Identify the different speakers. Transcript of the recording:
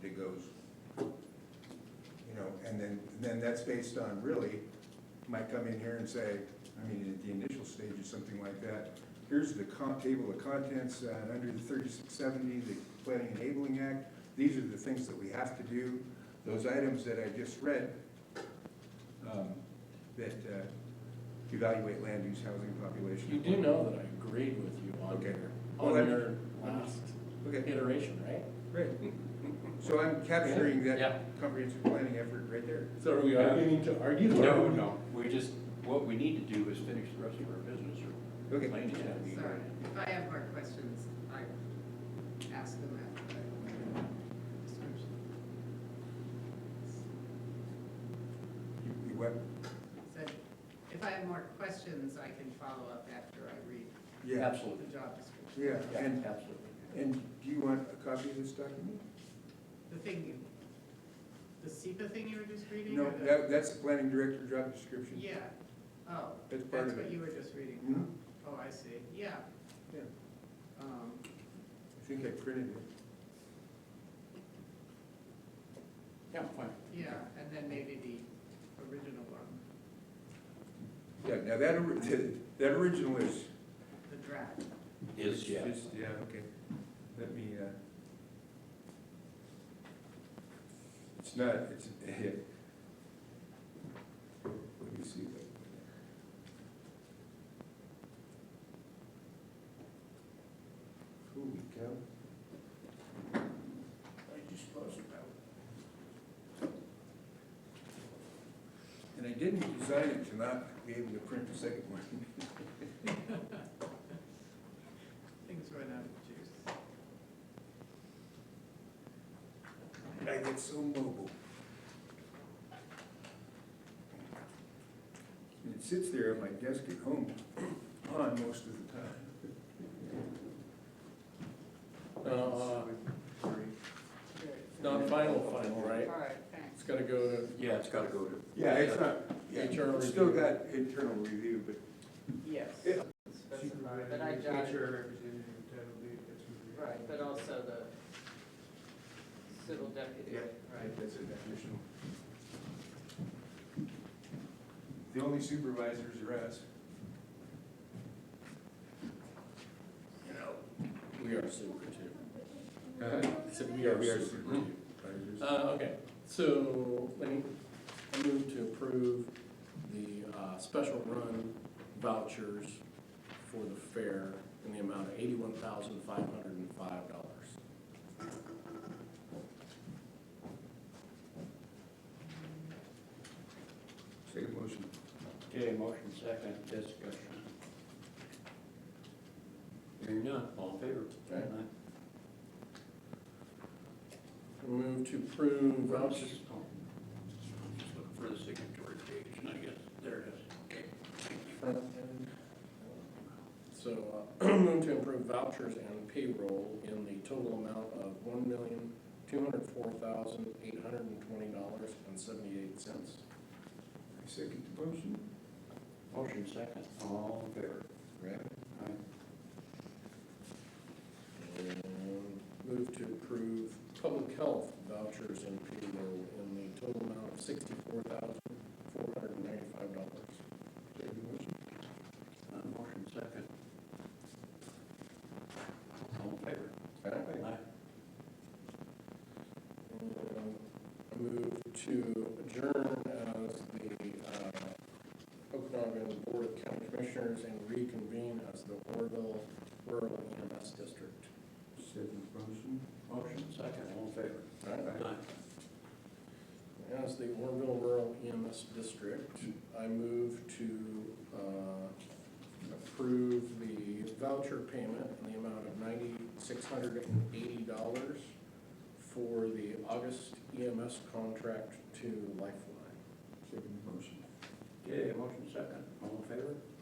Speaker 1: then, then that's based on really, might come in here and say, I mean, at the initial stage or something like that, here's the con, table of contents, uh, under the thirty-six seventy, the Planning Enabling Act, these are the things that we have to do. Those items that I just read, um, that, uh, evaluate land use, housing, population.
Speaker 2: You do know that I agreed with you on
Speaker 1: Okay.
Speaker 2: your,
Speaker 1: Well, I'm-
Speaker 2: on your last
Speaker 1: Okay,
Speaker 2: iteration, right?
Speaker 1: great. So I'm capturing
Speaker 2: Yeah.
Speaker 1: that comprehensive planning effort right there.
Speaker 2: So are we arguing to argue?
Speaker 3: No, no, we just, what we need to do is finish the rest of our business or
Speaker 1: Okay.
Speaker 3: Lane is gonna be
Speaker 4: Sorry,
Speaker 3: here.
Speaker 4: if I have more questions, I ask them after I.
Speaker 1: You you what?
Speaker 4: Said, if I have more questions, I can follow up after I read
Speaker 1: Yeah,
Speaker 3: Absolutely,
Speaker 4: the job description.
Speaker 1: yeah,
Speaker 3: yeah,
Speaker 1: and,
Speaker 3: absolutely.
Speaker 1: and do you want a copy of this document?
Speaker 4: The thing you, the SEPA thing you were just reading?
Speaker 1: No,
Speaker 4: or the-
Speaker 1: that, that's the planning director job description.
Speaker 4: Yeah, oh,
Speaker 1: That's part
Speaker 4: that's
Speaker 1: of
Speaker 4: what
Speaker 1: it.
Speaker 4: you were just reading.
Speaker 1: Mhm.
Speaker 4: Oh, I see, yeah.
Speaker 1: Yeah.
Speaker 4: Um,
Speaker 1: I think I printed it.
Speaker 3: Yeah, fine.
Speaker 4: yeah, and then maybe the original one,
Speaker 1: Yeah, now that, ori- that original is.
Speaker 4: the draft.
Speaker 3: Is, yeah.
Speaker 1: Yeah, okay. Let me, uh. It's not, it's, yeah. Let me see. Holy cow. I just lost power. And I didn't design it to not be able to print the second one.
Speaker 4: Things run out of juice.
Speaker 1: I get so mobile. And it sits there at my desk at home on most of the time.
Speaker 2: No,
Speaker 4: Very
Speaker 2: uh, not final, final,
Speaker 4: good.
Speaker 2: right?
Speaker 4: All right, thanks.
Speaker 2: It's gotta go to,
Speaker 3: Yeah, it's gotta go to.
Speaker 1: Yeah, it's not, yeah,
Speaker 2: Internal
Speaker 1: it's still
Speaker 2: review.
Speaker 1: got internal review, but
Speaker 5: Yes.
Speaker 1: Yeah.
Speaker 5: Specified, but I jotted,
Speaker 6: representative, title deed, that's what
Speaker 5: right, but also the civil deputy,
Speaker 1: Yeah.
Speaker 5: right?
Speaker 1: that's a definitional. The only supervisors are us. You know.
Speaker 2: we are super
Speaker 1: Uh,
Speaker 2: two. Uh-huh. So we are super two.
Speaker 1: supervisors.
Speaker 2: Uh, okay, so let me, I move to approve the, uh, special run vouchers for the fair in the amount of eighty-one thousand five hundred and five dollars.
Speaker 1: Second motion.
Speaker 3: Okay, motion second, discussion. Hearing none, all in favor?
Speaker 2: Right. Move to approve vouchers.
Speaker 3: Just Oh, looking for the signatory page, and I guess, there it is, okay.
Speaker 2: So, uh, move to approve vouchers and payroll in the total amount of one million, two hundred four thousand, eight hundred and twenty dollars and seventy-eight cents.
Speaker 1: I second the motion.
Speaker 3: Motion second, all in favor? Rabbit? Aye.
Speaker 2: And move to approve public health vouchers and payroll in the total amount of sixty-four thousand, four hundred and ninety-five dollars.
Speaker 1: Second motion.
Speaker 3: Uh, Motion second. All in favor? Aye.
Speaker 2: And I move to adjourn as the uh, Okanagan Board of County Commissioners and reconvene as the Orville Rural EMS District.
Speaker 1: Second motion.
Speaker 3: Motion second, all in favor? Aye.
Speaker 2: As the Orville Rural EMS District, I move to uh, approve the voucher payment in the amount of ninety-six hundred and eighty dollars for the August EMS contract to Lifeline.
Speaker 1: Second motion.
Speaker 3: Okay, motion second, all in favor?